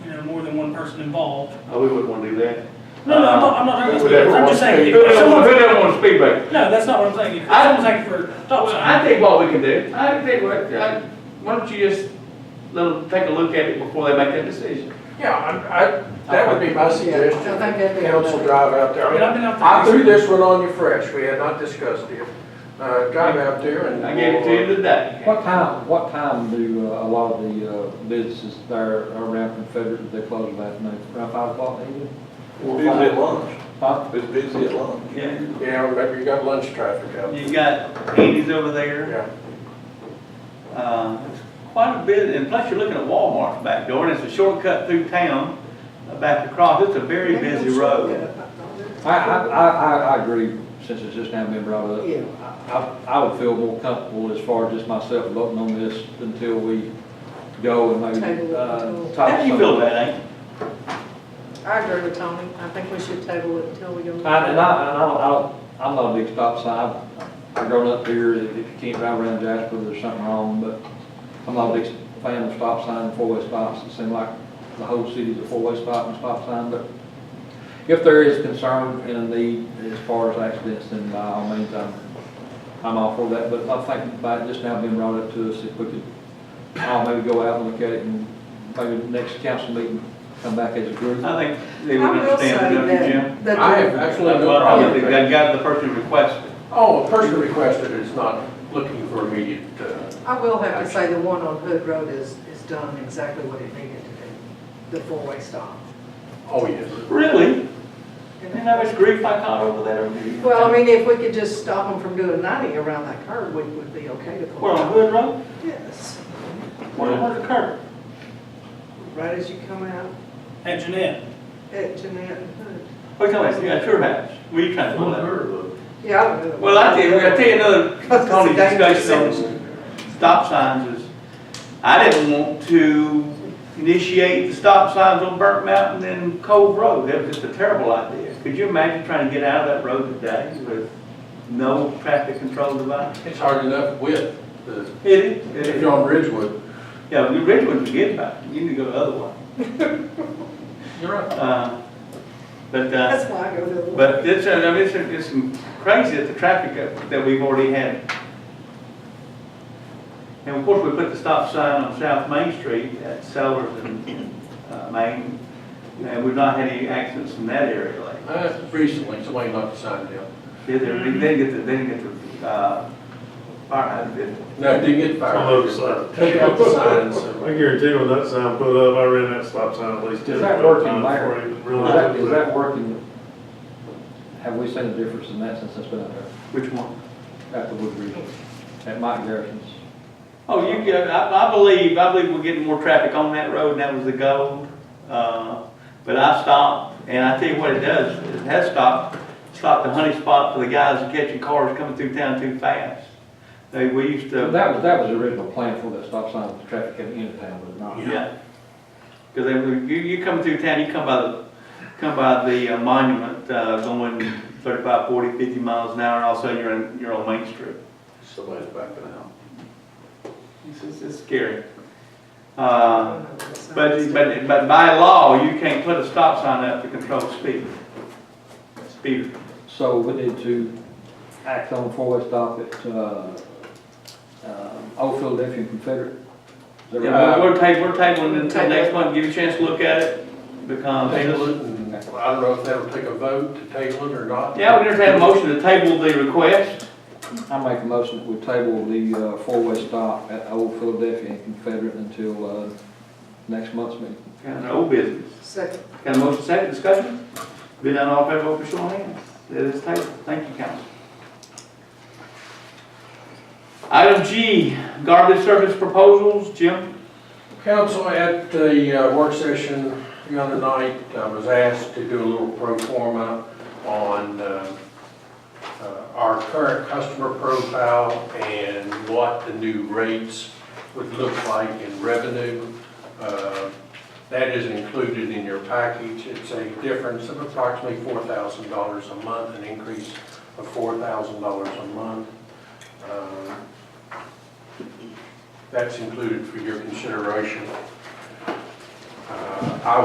more than one person involved. Oh, we wouldn't want to do that. Uh, No, no, I'm not, I'm not talking about Who that speed, I'm wants- just saying, Who if that wants- someone, who that wants to speed back? no, that's not what I'm saying, if I- someone's acting for stop Well, I sign. think what we can do, I think, what- I- why don't you just let them take a look at it before they make that decision? Yeah, I, I, that would be my suggestion. I think that'd be Council drive out there. I mean, I've been out there. I threw this one on you fresh, we had not discussed it. Uh, drive out there and. I gave it to you today. What time, what time do uh, a lot of the uh, businesses there around Confederate, do they close last night? Around five o'clock maybe? Busy at lunch, Huh? it's busy at lunch. Yeah. Yeah, remember you got lunch traffic out there. You've got Andy's over there, Yeah, uh, it's quite a bit, and plus you're looking at Walmart's back door, and it's a shortcut through town, uh, back across, it's a very busy road. I, I, I, I- I agree, since it's just now been brought up. Yeah. I, I would feel more comfortable as far as just myself voting on this until we go and Table maybe, it uh, until- talk How do you some- feel about that, Andy? I agree with Tony, I think we should table it until we go. I- And I, and I don't, I don't, I'm not a big stop sign, I've grown up here, if you can't drive around Jasper, there's something wrong, but I'm not a big fan of stop sign and four-way stops, it seems like the whole city's a four-way stop and stop sign, but if there is concern and a need as far as accidents, then by all means, I'm, I'm all for that, but I think by it just now being brought up to us, if we could, I'll maybe go out and look at it and maybe next council meeting, come back as a group. I think they would understand, don't you, Jim? that- I have absolutely no Well, I problem don't with think that that. got the person requested. Oh, a person requested is not looking for immediate, uh, I will have to say the one on Hood Road is, is done exactly what it needed to do, the four-way stop. oh, yes. Really? And then I was grief I caught over that over here. Well, I mean, if we could just stop them from doing ninety around that curve, we would be okay to pull Where on out. Hood Road? Yes, Where, where the curb? right as you come out At Jeanette, at Jeanette and Hood. What kind of, at your house? Where you trying to pull that? Yeah, I don't know. Well, I tell you, I tell you another, That's Tony, a dangerous discussion on stop signs is, I didn't want to initiate the stop signs on Burnt Mountain and Cove Road. That was just a terrible idea. Could you imagine trying to get out of that road today with no traffic control device? It's hard enough with the, It is, it if is. you're on Ridgewood. Yeah, well, you really wouldn't forget about it, you need to go the other way. You're right. Uh, But, uh, That's why I go to the. but it's, uh, I mean, it's, it's crazy that the traffic that- that we've already had. And of course, we put the stop sign on South Main Street at Sellers and, uh, Main, and we've not had any accidents in that area lately. Uh, recently, somebody knocked the sign down. They didn't, they didn't get the, they didn't get the, uh, fire hydrant, did they? No, it didn't get Hello, fired. sir. Take out the uh, signs. and- I guarantee when that sign put up, I ran that stop sign at least ten, Is that twelve working, times Larry? before I even Is that, realized. it is was that working? Have we seen a difference in that since it's been out there, Which one? at the Wood Regional, at Mike Garrison's? Oh, you, get- I, I believe, I believe we're getting more traffic on that road, and that was the goal. Uh, But I stopped, and I tell you what it does, it has stopped, stopped the honey spot for the guys catching cars coming through town too fast. They, we used That to, was, that was the original plan for that stop sign, the traffic coming into town, but not. yeah. Because they, were- you, you come through town, you come by the, come by the uh, monument, uh, going 35, 40, 50 miles an hour, and all of a sudden you're in, you're on Main Street. Somebody's backing out. It's, it's- it's scary. Uh, I don't know what sign But, is. but, but by law, you can't put a stop sign up to control speed. Speed. So we need to act on four-way stop at, uh, uh, Old Philadelphia Confederate. Is that We're, right? Yeah. we're tabling, we're tabling it until next month, give you a chance to look at it, because. Table it, and I don't know if that'll take a vote to table it or not. Yeah, we just had a motion to table the request. I make a motion that we table the, uh, four-way stop at Old Philadelphia and Confederate until, uh, next month's meeting. Kind of old business. Second. Got a motion second, discussion? Be done all in favor, vote by show of hands. It is tabled. Thank you, council. Item G, garbage service proposals. Jim? Council, at the uh, work session the other night, I was asked to do a little pro forma on uh, uh, our current customer profile and what the new rates would look like in revenue. Uh, That is included in your package. It's a difference of approximately $4,000 a month, an increase of $4,000 a month. Um, that's included for your consideration. Uh, I